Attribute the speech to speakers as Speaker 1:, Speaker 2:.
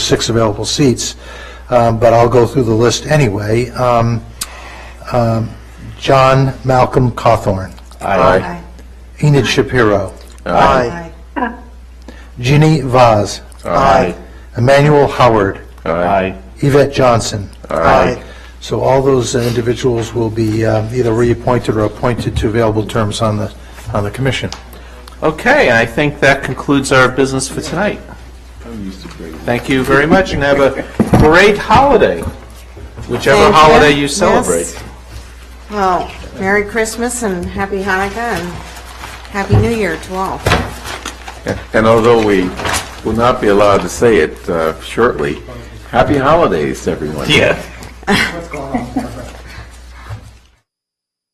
Speaker 1: six available seats, um, but I'll go through the list anyway. Um, um, John Malcolm Cawthorn,
Speaker 2: Aye.
Speaker 1: Enid Shapiro,
Speaker 2: Aye.
Speaker 1: Ginny Vaz,
Speaker 2: Aye.
Speaker 1: Emmanuel Howard,
Speaker 2: Aye.
Speaker 1: Yvette Johnson.
Speaker 2: Aye.
Speaker 1: So all those individuals will be uh, either reappointed or appointed to available terms on the, on the commission.
Speaker 2: Okay, I think that concludes our business for tonight. Thank you very much, and have a great holiday, whichever
Speaker 3: Thank
Speaker 2: holiday you
Speaker 3: Yes.
Speaker 2: celebrate.
Speaker 3: Well, Merry Christmas and Happy Hanukkah and Happy New Year to all.
Speaker 4: And although we will not be allowed to say it uh, shortly, happy holidays, everyone.
Speaker 2: Yeah.